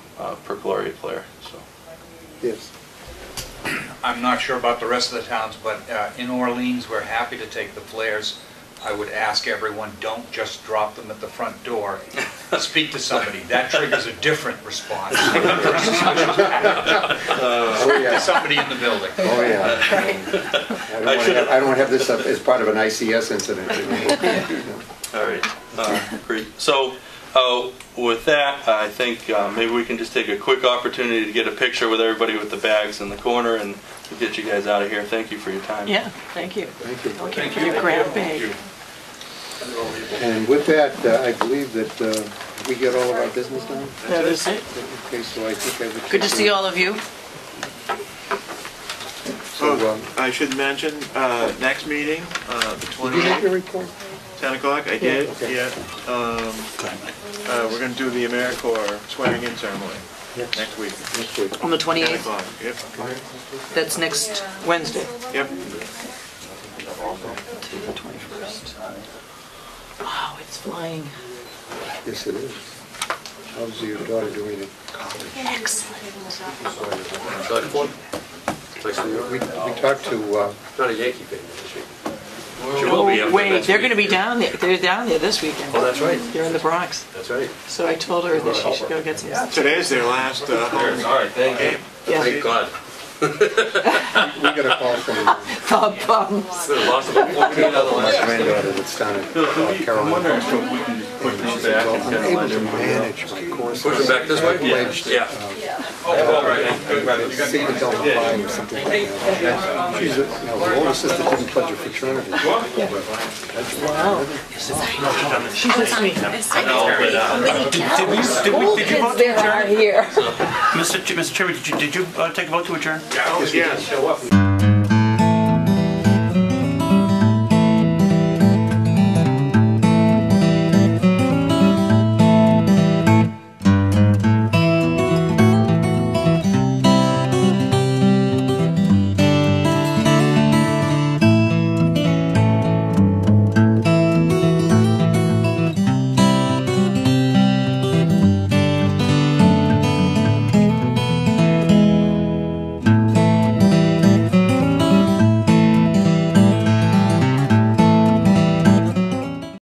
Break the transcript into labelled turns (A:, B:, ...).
A: uh, perchlorate flare, so.
B: Yes.
C: I'm not sure about the rest of the towns, but uh, in Orleans, we're happy to take the flares. I would ask everyone, don't just drop them at the front door. Speak to somebody. That triggers a different response.
B: Oh,
C: There's
B: yes.
C: Somebody in the building.
B: Oh, yeah. I don't wanna have- I don't want to have this up as part of an ICS incident. you know.
A: All right, uh, great. So uh, with that, I think uh, maybe we can just take a quick opportunity to get a picture with everybody with the bags in the corner and we'll get you guys out of here. Thank you for your time.
D: Yeah, thank you.
B: Thank you.
D: Thank you for your grab bag.
B: And with that, uh, I believe that uh, we get all of our business done.
D: That is it.
B: Okay, so I think I would.
D: Good to see all of you.
B: So,
E: Oh,
B: um,
E: I should mention, uh, next meeting, uh, the
B: Did you make your
E: 20th,
B: report?
E: 10 o'clock, I did,
B: okay.
E: yeah. Um, uh, We're going to do the AmeriCorps swearing-in ceremony next week,
B: Next week.
D: On the
E: 10
D: 28th,
E: o'clock, yep,
D: that's next Wednesday.
E: yep.
D: To the 21st. Wow, it's flying.
B: Yes, it is. How's your daughter doing? We we talked to, uh,
F: Not a Yankee fan, is she?
A: She will be up there
D: Oh, Wait,
A: next
D: they're
A: week.
D: going to be down there, they're down there this weekend.
F: Oh, that's right.
D: They're in the Bronx.
F: That's right.
D: So I told her that she should go get some.
E: Today's their last uh, home
F: right, thank
E: game.
D: Yeah,
F: Thank God.
B: we got a call from my
D: Bob Bum.
F: It's been a loss of 14 other lines.
B: granddaughter that's down in uh, Carolina.
A: Push
B: Well, I'm able to manage my course.
F: Push them back this way?
B: Wedged.
F: Yeah.
B: See until five or something like that. She's, a- you know, her older sister didn't pledge her fraternity.
D: Wow. She's just me.
G: Did we, did we, did you vote to adjourn?
D: here.
G: Mr. Ch- Mr. Chairman, did you, did you uh, take a vote to adjourn?
E: Yes, we did.
F: Show up.